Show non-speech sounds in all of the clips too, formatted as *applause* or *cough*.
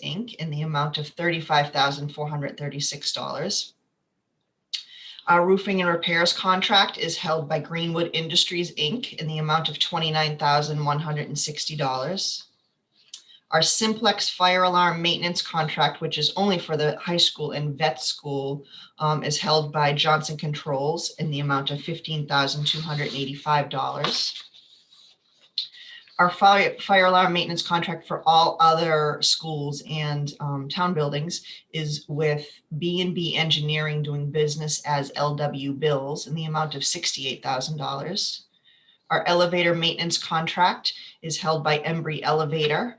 Inc. in the amount of thirty-five thousand four hundred thirty-six dollars. Our roofing and repairs contract is held by Greenwood Industries Inc. in the amount of twenty-nine thousand one hundred and sixty dollars. Our Simplex fire alarm maintenance contract, which is only for the high school and vet school, um, is held by Johnson Controls in the amount of fifteen thousand two hundred and eighty-five dollars our fire, fire alarm maintenance contract for all other schools and um, town buildings is with B and B Engineering doing business as LW Bills in the amount of sixty-eight thousand dollars. Our elevator maintenance contract is held by Embry Elevator,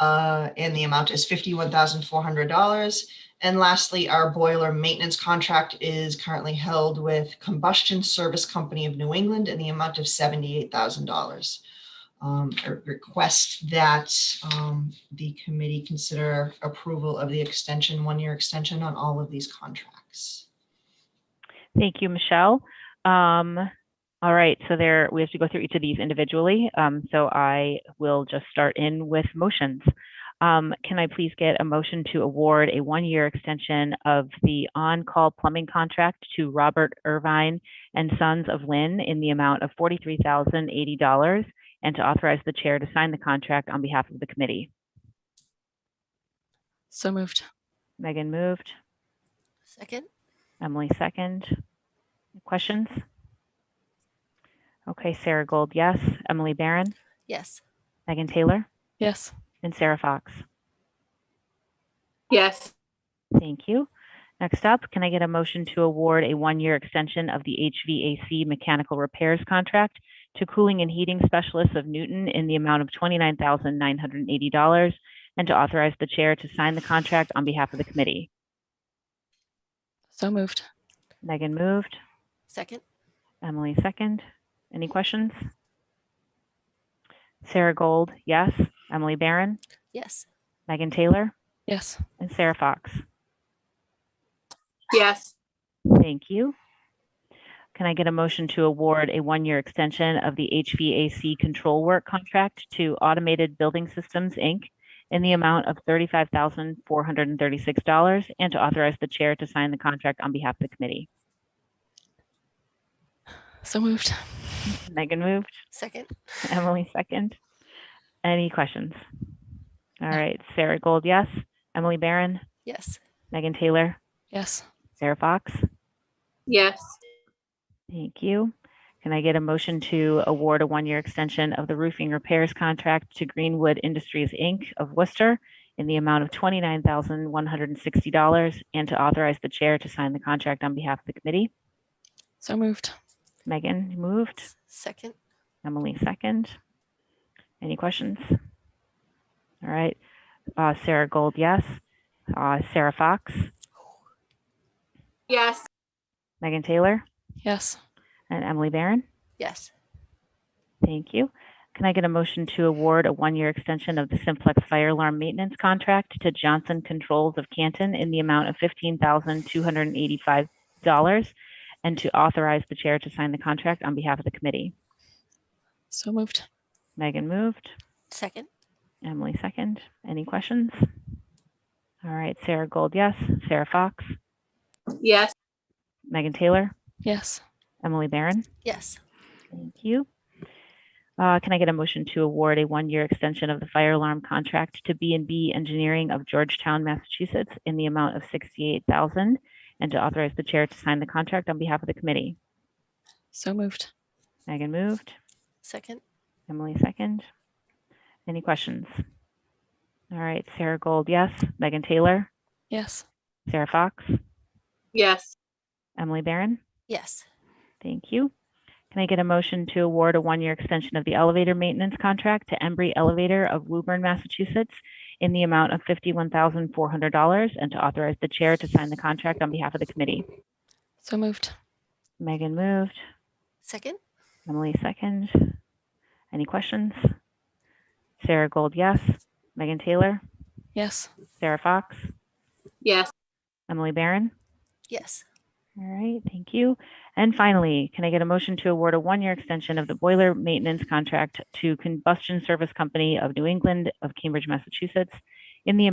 uh, and the amount is fifty-one thousand four hundred dollars. And lastly, our boiler maintenance contract is currently held with Combustion Service Company of New England in the amount of seventy-eight thousand dollars um, I request that, um, the committee consider approval of the extension, one-year extension on all of these contracts. Thank you, Michelle. Um, all right, so there, we have to go through each of these individually. Um, so I will just start in with motions. Um, can I please get a motion to award a one-year extension of the on-call plumbing contract to Robert Irvine and Sons of Lynn in the amount of forty-three thousand eighty dollars and to authorize the chair to sign the contract on behalf of the committee? So moved. Megan moved, Second? Emily second. Questions? Okay, Sarah Gold, yes. Emily Barron, Yes. Megan Taylor, Yes. and Sarah Fox. yes, Thank you. Next up, can I get a motion to award a one-year extension of the HVAC mechanical repairs contract to Cooling and Heating Specialists of Newton in the amount of $29,980 and to authorize the chair to sign the contract on behalf of the committee? So moved. Megan moved, Second? Emily second. Any questions? Sarah Gold, yes. Emily Barron, Yes. Megan Taylor, Yes. and Sarah Fox. yes, Thank you. Can I get a motion to award a one-year extension of the HVAC control work contract to Automated Building Systems, Inc. in the amount of thirty-five thousand, four hundred and thirty-six dollars and to authorize the chair to sign the contract on behalf of the committee? So moved. Megan moved, Second? *laughs* Emily second. Any questions? All right, Sarah Gold, yes. Emily Barron, Yes. Megan Taylor, Yes. Sarah Fox. yes, Thank you. Can I get a motion to award a one-year extension of the roofing repairs contract to Greenwood Industries, Inc. of Worcester in the amount of $29,160 and to authorize the chair to sign the contract on behalf of the committee? So moved. Megan moved, Second? Emily second. Any questions? All right, Uh, Sarah Gold, yes. Uh, Sarah Fox, yes, Megan Taylor, Yes. and Emily Barron? Yes. Thank you. Can I get a motion to award a one-year extension of the Simplex Fire Alarm Maintenance Contract to Johnson Controls of Canton in the amount of fifteen thousand two hundred and eighty-five dollars and to authorize the chair to sign the contract on behalf of the committee? So moved. Megan moved, Second? Emily second. Any questions? All right, Sarah Gold, yes. Sarah Fox, yes, Megan Taylor, Yes. Emily Barron? Yes. Thank you. Uh, Can I get a motion to award a one-year extension of the fire alarm contract to b and B Engineering of Georgetown, Massachusetts in the amount of $68,000 and to authorize the chair to sign the contract on behalf of the committee? So moved. Megan moved, Second? Emily second. Any questions? All right, Sarah Gold, yes. Megan Taylor, Yes. Sarah Fox, yes, Emily Barron? Yes. Thank you. Can I get a motion to award a one-year extension of the elevator maintenance contract to Embry Elevator of Woburn, Massachusetts in the amount of $51,400 and to authorize the chair to sign the contract on behalf of the committee? So moved. Megan moved, Second? Emily second. Any questions? Sarah Gold, yes. Megan Taylor, Yes. Sarah Fox, yes, Emily Barron? Yes. All right, thank you. And finally, can I get a motion to award a one-year extension of the boiler maintenance contract to Combustion Service Company of New England of Cambridge, Massachusetts in the